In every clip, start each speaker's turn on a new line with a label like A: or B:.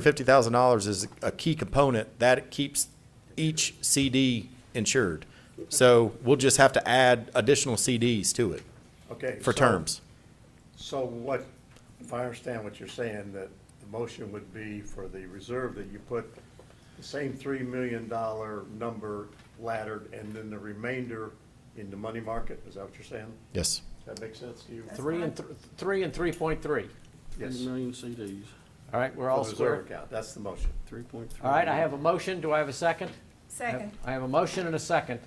A: Fifty thousand dollars is a key component that keeps each CD insured. So we'll just have to add additional CDs to it
B: Okay.
A: for
B: so-
A: terms.
B: So what, if I understand what you're saying, that the motion would be for the reserve that you put the same three million dollar number laddered and then the remainder in the money market? Is that what you're saying?
A: Yes.
B: Does that make sense to you?
C: Three and, th- three and three point three.
B: Yes.
D: Three million CDs,
C: All right, we're
B: For
C: all
B: the reserve
C: square.
B: account, that's the motion.
D: three point three.
C: All right, I have a motion. Do I have a second?
E: Second.
C: I have a motion and a second.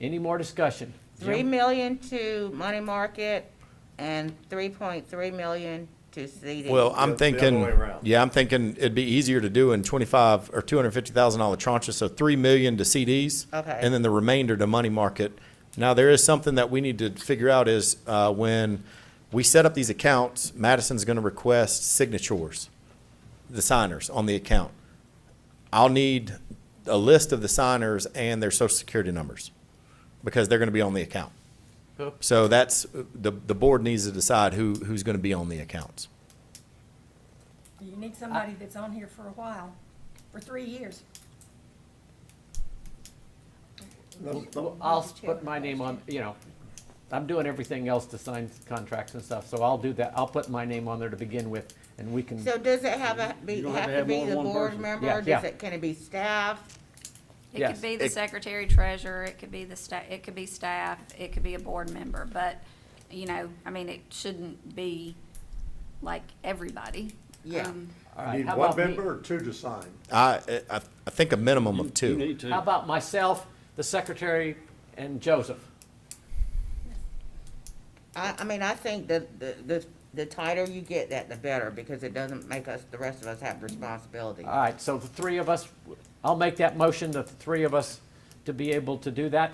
C: Any more discussion?
F: Three
C: Jim?
F: million to money market and three point three million to CD.
A: Well,
B: Yeah,
A: I'm
B: the other
A: thinking,
B: way around.
A: yeah, I'm thinking it'd be easier to do in twenty-five or two hundred fifty thousand dollar tranches, so three million to CDs.
F: Okay.
A: And then the remainder to money market. Now, there is something that we need to figure out is, uh, when we set up these accounts, Madison's gonna request signatures, the signers on the account. I'll need a list of the signers and their social security numbers, because they're gonna be on the account.
C: Who?
A: So that's, the, the board needs to decide who, who's gonna be on the accounts.
E: You need somebody that's on here for a while, for three years.
C: Well, I'll put my name on, you know, I'm doing everything else to sign contracts and stuff, so I'll do that. I'll put my name on there to begin with, and we can,
F: So does it have a, be,
D: You don't
F: have to be
D: more than
F: the
D: one
F: board
D: person.
F: member?
C: Yeah,
F: Does
C: yeah.
F: it- Can it be staff?
G: It
C: Yes.
G: could be the
A: It-
G: secretary treasurer, it could be the sta, it could be staff, it could be a board member, but, you know, I mean, it shouldn't be like everybody.
F: Yeah.
G: Um,
C: all
B: You
C: right.
B: Need
C: How
B: one
C: about
B: member
C: me?
B: or two to sign?
A: I, I, I think a minimum of
D: You
A: two.
D: need
C: How
D: to,
C: about myself, the secretary, and Joseph?
F: I, I mean, I think the, the, the the tighter you get that, the better, because it doesn't make us, the rest of us have responsibility.
C: All right, so the three of us, I'll make that motion, that the three of us to be able to do that.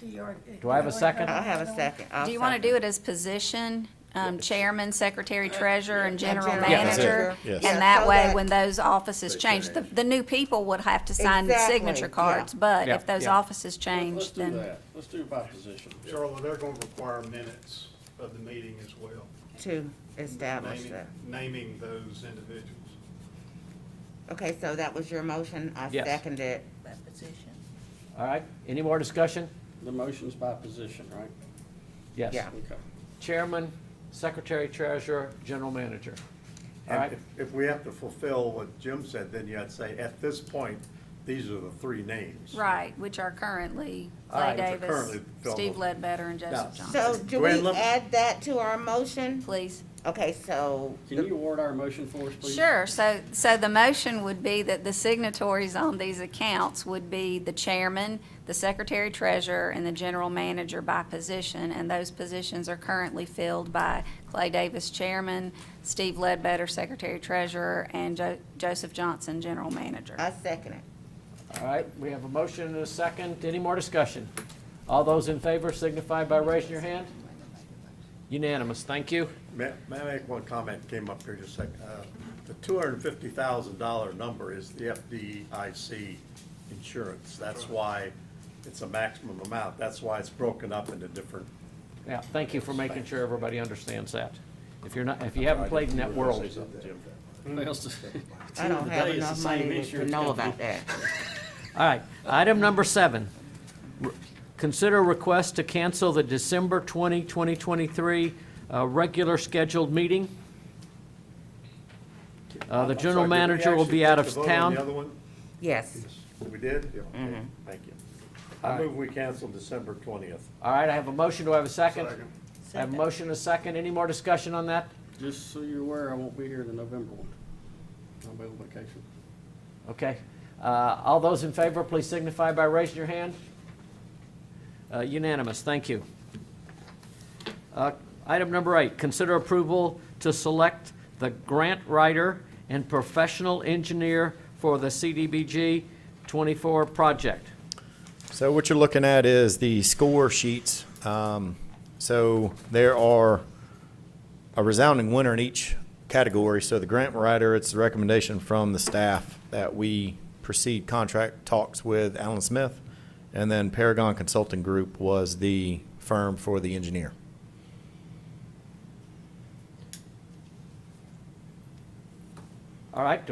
E: Do you already-
C: Do I have a
E: you wanna
C: second?
E: vote on
F: I'll have a
E: another one?
F: second. I'll
G: Do you wanna
F: second.
G: do it as position, um, chairman, secretary,
F: Uh,
G: treasurer, and general
F: general
G: manager?
F: manager.
A: Yes.
G: And
F: Yeah,
G: that
F: so
G: way,
F: that-
G: when those offices change, the, the new people would have to sign the
F: Exactly,
G: signature
F: yeah.
G: cards, but
C: Yeah,
G: if those
C: yeah.
D: let's
G: offices change,
D: do
G: then.
D: that, let's do it by position.
H: Charlotte, they're going to require minutes of the meeting as well,
F: To establish
H: naming,
F: that.
H: naming those individuals.
F: Okay, so that was your motion. I
C: Yes.
F: seconded it.
C: All right, any more discussion?
D: The motion's by position, right?
C: Yes.
F: Yeah.
D: Okay.
C: Chairman, Secretary, Treasurer, General Manager. All right.
B: And if, if we have to fulfill what Jim said, then you'd say, at this point, these are the three names.
G: Right, which are currently
C: All
G: Clay
C: right,
B: which are currently
G: Davis,
B: filled.
G: Steve Ledbetter, and
B: Now,
G: Joseph
F: So
G: Johnson.
F: do
B: Gwen,
F: we
B: let me-
F: add that to our motion?
G: Please.
F: Okay, so.
D: Can you award our motion for us, please?
G: Sure, so, so the motion would be that the signatories on these accounts would be the chairman, the secretary treasurer, and the general manager by position, and those positions are currently filled by Clay Davis, chairman, Steve Ledbetter, secretary treasurer, and Jo- Joseph Johnson, general manager.
F: I second it.
C: All right, we have a motion and a second. Any more discussion? All those in favor signify by raising your hand. Unanimous, thank you.
B: May may I make one comment, came up here just a second. Uh, The $250,000 number is the FDIC insurance. That's why it's a maximum amount. That's why it's broken up into different,
C: Yeah, thank you for making sure everybody understands that. If you're not, if you haven't played in that world,
D: What else to-
F: I don't
D: Today
F: have
D: it's the
F: enough
D: same
F: money to
D: insurance
F: know
D: company.
F: about that.
C: All right, item number seven. R- Consider request to cancel the December 20, 2023 uh, regular scheduled meeting. Uh, The
B: I'm
C: general
B: sorry, did we
C: manager will
B: actually
C: be out
B: take
C: of
B: the vote on The other
C: town.
B: one?
F: Yes.
B: We did? Yeah, okay. Thank you. I move we cancel December 20th.
C: All right, I have a motion, do I have a second?
H: Second.
C: I have a motion, and a second, any more discussion on that?
D: Just so you're aware, I won't be here the November one. I'll be on vacation.
C: Okay, Uh, all those in favor, please signify by raising your hand. Uh, Unanimous, thank you. Uh, Item number eight, consider approval to select the grant writer and professional engineer for the CDBG 24 project.
A: So what you're looking at is the score sheets. Um, so there are a resounding winner in each category. So the grant writer, it's the recommendation from the staff that we proceed contract talks with Alan Smith. And then Paragon Consulting Group was the firm for the engineer.
C: All All right,